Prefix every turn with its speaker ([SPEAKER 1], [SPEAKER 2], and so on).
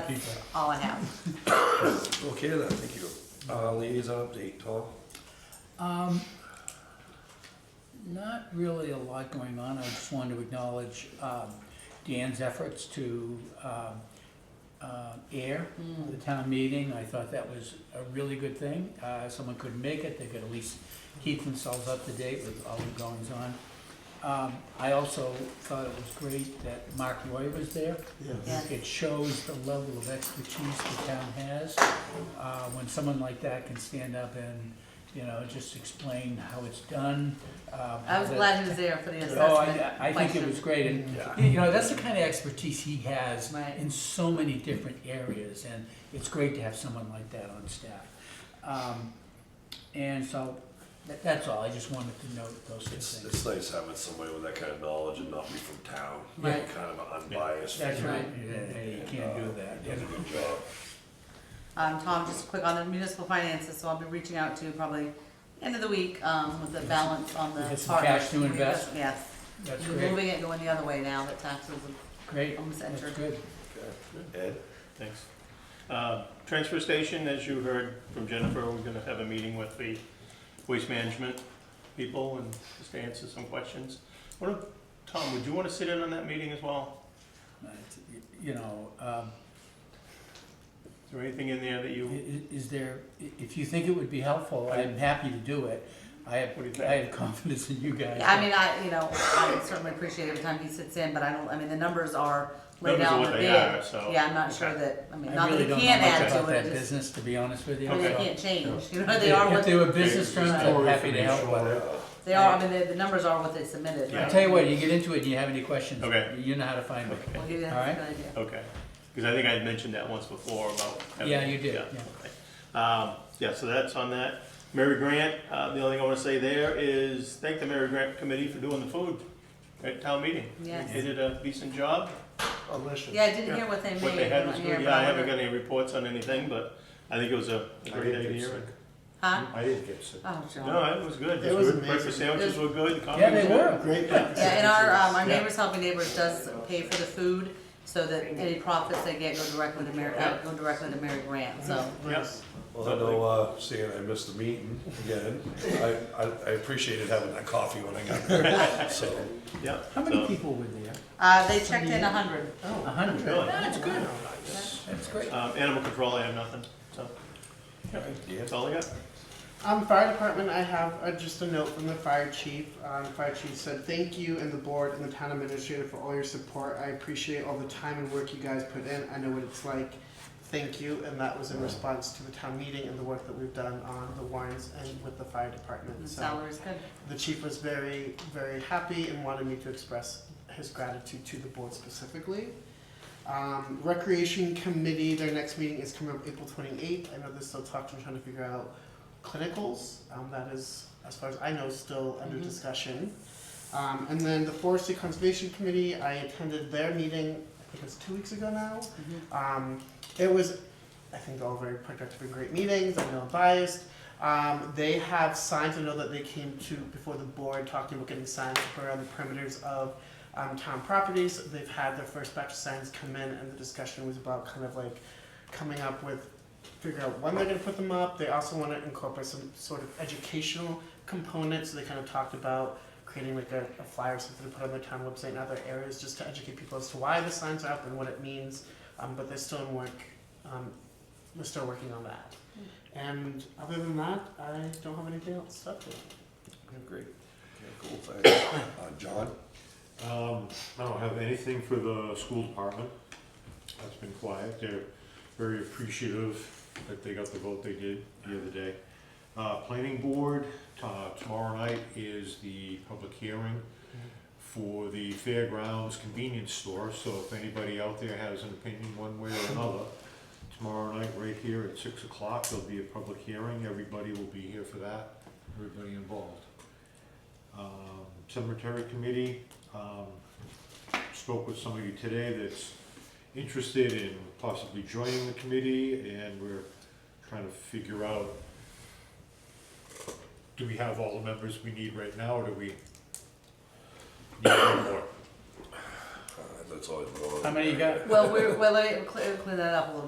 [SPEAKER 1] people.
[SPEAKER 2] that's all I have.
[SPEAKER 3] Okay then, thank you. Uh, liaison update, Tom?
[SPEAKER 1] Um, not really a lot going on. I just wanted to acknowledge, um, Dan's efforts to, um, uh, air the town meeting. I thought that was a really good thing. Uh, someone couldn't make it, they could at least keep themselves up to date with all the goings on. Um, I also thought it was great that Mark Roy was there.
[SPEAKER 2] Yeah.
[SPEAKER 1] It shows the level of expertise the town has, uh, when someone like that can stand up and, you know, just explain how it's done. uh,
[SPEAKER 2] I was
[SPEAKER 1] that-
[SPEAKER 2] glad he was there for the
[SPEAKER 1] Oh,
[SPEAKER 2] assessment
[SPEAKER 1] I, I think it was
[SPEAKER 2] question.
[SPEAKER 1] great, and,
[SPEAKER 3] Yeah.
[SPEAKER 1] you know, that's the kind of expertise he has
[SPEAKER 2] Right.
[SPEAKER 1] in so many different areas, and it's great to have someone like that on staff. Um, and so, that, that's all, I just wanted to note those two
[SPEAKER 3] It's,
[SPEAKER 1] things.
[SPEAKER 3] it's nice having somebody with that kind of knowledge and not be from town.
[SPEAKER 2] Right.
[SPEAKER 3] Kind of an unbiased. uh,
[SPEAKER 1] That's
[SPEAKER 3] view.
[SPEAKER 1] right, yeah, you can't do that.
[SPEAKER 3] Does a good job.
[SPEAKER 2] Um, Tom, just quick on the municipal finances, so I'll be reaching out to you probably end of the week, um, with the balance on the.
[SPEAKER 1] Get some
[SPEAKER 2] partners.
[SPEAKER 1] cash to invest.
[SPEAKER 2] Yes.
[SPEAKER 1] That's
[SPEAKER 2] We're
[SPEAKER 1] great,
[SPEAKER 2] moving it going the other way now that taxes have
[SPEAKER 1] great,
[SPEAKER 2] almost
[SPEAKER 1] that's
[SPEAKER 2] entered.
[SPEAKER 1] good.
[SPEAKER 3] Ed?
[SPEAKER 4] Thanks. Uh, Transfer station, as you heard from Jennifer, we're gonna have a meeting with the waste management people and just to answer some questions. What, if- Tom, would you wanna sit in on that meeting as well?
[SPEAKER 1] Uh, it's- You know, um,
[SPEAKER 4] Is there anything in there that
[SPEAKER 1] I-
[SPEAKER 4] you,
[SPEAKER 1] i- Is there, i- if you think it would be helpful, I'm happy to do it. I have,
[SPEAKER 4] What do you think?
[SPEAKER 1] I have confidence in you guys.
[SPEAKER 2] Yeah, I mean, I, you know, I certainly appreciate every time he sits in, but I don't, I mean, the numbers are laid
[SPEAKER 4] Numbers are
[SPEAKER 2] out in
[SPEAKER 4] what
[SPEAKER 2] the
[SPEAKER 4] they
[SPEAKER 2] bid.
[SPEAKER 4] are, so-
[SPEAKER 2] Yeah, I'm not sure
[SPEAKER 4] okay.
[SPEAKER 2] that, I mean,
[SPEAKER 1] I
[SPEAKER 2] not that
[SPEAKER 1] really
[SPEAKER 2] he
[SPEAKER 1] don't know
[SPEAKER 2] can't
[SPEAKER 1] much
[SPEAKER 2] add
[SPEAKER 1] about
[SPEAKER 2] to it,
[SPEAKER 1] that
[SPEAKER 2] it just,
[SPEAKER 1] business, to be honest with you.
[SPEAKER 2] I mean, they
[SPEAKER 4] Okay.
[SPEAKER 2] can't change, you know, they are
[SPEAKER 1] If
[SPEAKER 2] what,
[SPEAKER 1] they were business
[SPEAKER 3] Yeah,
[SPEAKER 1] terms, I'm happy to help with it.
[SPEAKER 3] uh,
[SPEAKER 2] they are, I mean, the, the numbers are what they submitted,
[SPEAKER 1] I
[SPEAKER 4] Yeah.
[SPEAKER 2] right?
[SPEAKER 1] tell you what, you get into it and you have any questions,
[SPEAKER 4] Okay.
[SPEAKER 1] you know how to find me.
[SPEAKER 2] Well, he-
[SPEAKER 1] All
[SPEAKER 2] that's a
[SPEAKER 1] right.
[SPEAKER 2] good idea.
[SPEAKER 4] okay, because I think I had mentioned that once before about. having-
[SPEAKER 1] Yeah, you did, yeah.
[SPEAKER 4] okay. Um, Yeah, so that's on that. Mary Grant, uh, the only thing I wanna say there is thank the Mary Grant Committee for doing the food at town meeting.
[SPEAKER 2] Yes.
[SPEAKER 4] They did a decent job.
[SPEAKER 2] Yeah, I didn't hear what they made.
[SPEAKER 4] What they had
[SPEAKER 2] I'm
[SPEAKER 4] was
[SPEAKER 2] not
[SPEAKER 4] good,
[SPEAKER 2] here,
[SPEAKER 4] yeah, I
[SPEAKER 2] but
[SPEAKER 4] haven't got any reports on anything, but I think it was a a
[SPEAKER 5] I
[SPEAKER 4] great
[SPEAKER 5] didn't get
[SPEAKER 4] idea.
[SPEAKER 5] sick.
[SPEAKER 2] Huh?
[SPEAKER 5] I didn't get sick.
[SPEAKER 2] Oh,
[SPEAKER 4] No,
[SPEAKER 2] John.
[SPEAKER 4] it was good,
[SPEAKER 5] It
[SPEAKER 1] was
[SPEAKER 4] breakfast
[SPEAKER 5] amazing.
[SPEAKER 4] sandwiches were good,
[SPEAKER 1] Yeah, they
[SPEAKER 4] coffee was
[SPEAKER 1] were.
[SPEAKER 5] Great.
[SPEAKER 2] Yeah, and our, um, our
[SPEAKER 4] Yeah.
[SPEAKER 2] Neighbors Helping Neighbors does pay for the food, so that any profits they get go directly to Mary, uh,
[SPEAKER 4] Yeah.
[SPEAKER 2] go directly to Mary Grant, so.
[SPEAKER 4] good. Yes.
[SPEAKER 3] Well, I know, uh, saying I missed the meeting again, I, I, I appreciated having that coffee when I got there, so.
[SPEAKER 4] Yeah.
[SPEAKER 1] How many people were there?
[SPEAKER 2] Uh, they checked in a hundred.
[SPEAKER 1] A hundred?
[SPEAKER 4] Really?
[SPEAKER 1] That's good. That's great.
[SPEAKER 4] Um, animal control, I have nothing, so,
[SPEAKER 3] Yeah.
[SPEAKER 4] that's all I got.
[SPEAKER 6] Um, fire department, I have uh, just a note from the fire chief. Um, fire chief said, thank you and the board and the town administrator for all your support. I appreciate all the time and work you guys put in. I know what it's like. Thank you. And that was in response to the town meeting and the work that we've done on the warrants and with the fire department.
[SPEAKER 2] The
[SPEAKER 6] so
[SPEAKER 2] salary's good.
[SPEAKER 6] the chief was very, very happy and wanted me to express his gratitude to the board specifically. Um, Recreation Committee, their next meeting is coming up April twenty-eighth. I know they're still talking, trying to figure out clinicals. Um, that is, as far as I know, still under
[SPEAKER 2] Mhm.
[SPEAKER 6] discussion. Um, and then the Forestry Conservation Committee, I attended their meeting, I think it was two weeks ago now. Um, it was, I think, all very productive and great meetings. I know I'm biased. Um, they have signs. I know that they came to before the board talking about getting signs to put around the perimeters of um, town properties. They've had their first batch of signs come in, and the discussion was about kind of like coming up with figure out when they're going to put them up. They also want to incorporate some sort of educational component. So they kind of talked about creating like a, a flyer or something to put on their town website and other areas just to educate people as to why the signs are up and what it means. Um, but they're still in work. Um, we're still working on that. And other than that, I don't have anything else to update.
[SPEAKER 3] Great. Okay, Cool, thanks. Uh, John?
[SPEAKER 5] Um, I don't have anything for the school department. That's been quiet. They're very appreciative that they got the vote they did the other day. Uh, planning board, uh, tomorrow night is the public hearing for the fairgrounds convenience store, so if anybody out there has an opinion one way or another, tomorrow night, right here at six o'clock, there'll be a public hearing. Everybody will be here for that, everybody involved. Um, cemetery committee, um, spoke with somebody today that's interested in possibly joining the committee, and we're trying to figure out, do we have all the members we need right now, or do we need one more?
[SPEAKER 3] Uh, I'd that's always. been one of
[SPEAKER 1] How many you
[SPEAKER 3] them.
[SPEAKER 1] got?
[SPEAKER 2] Well, we're, well, let me clear, clear that up a little bit.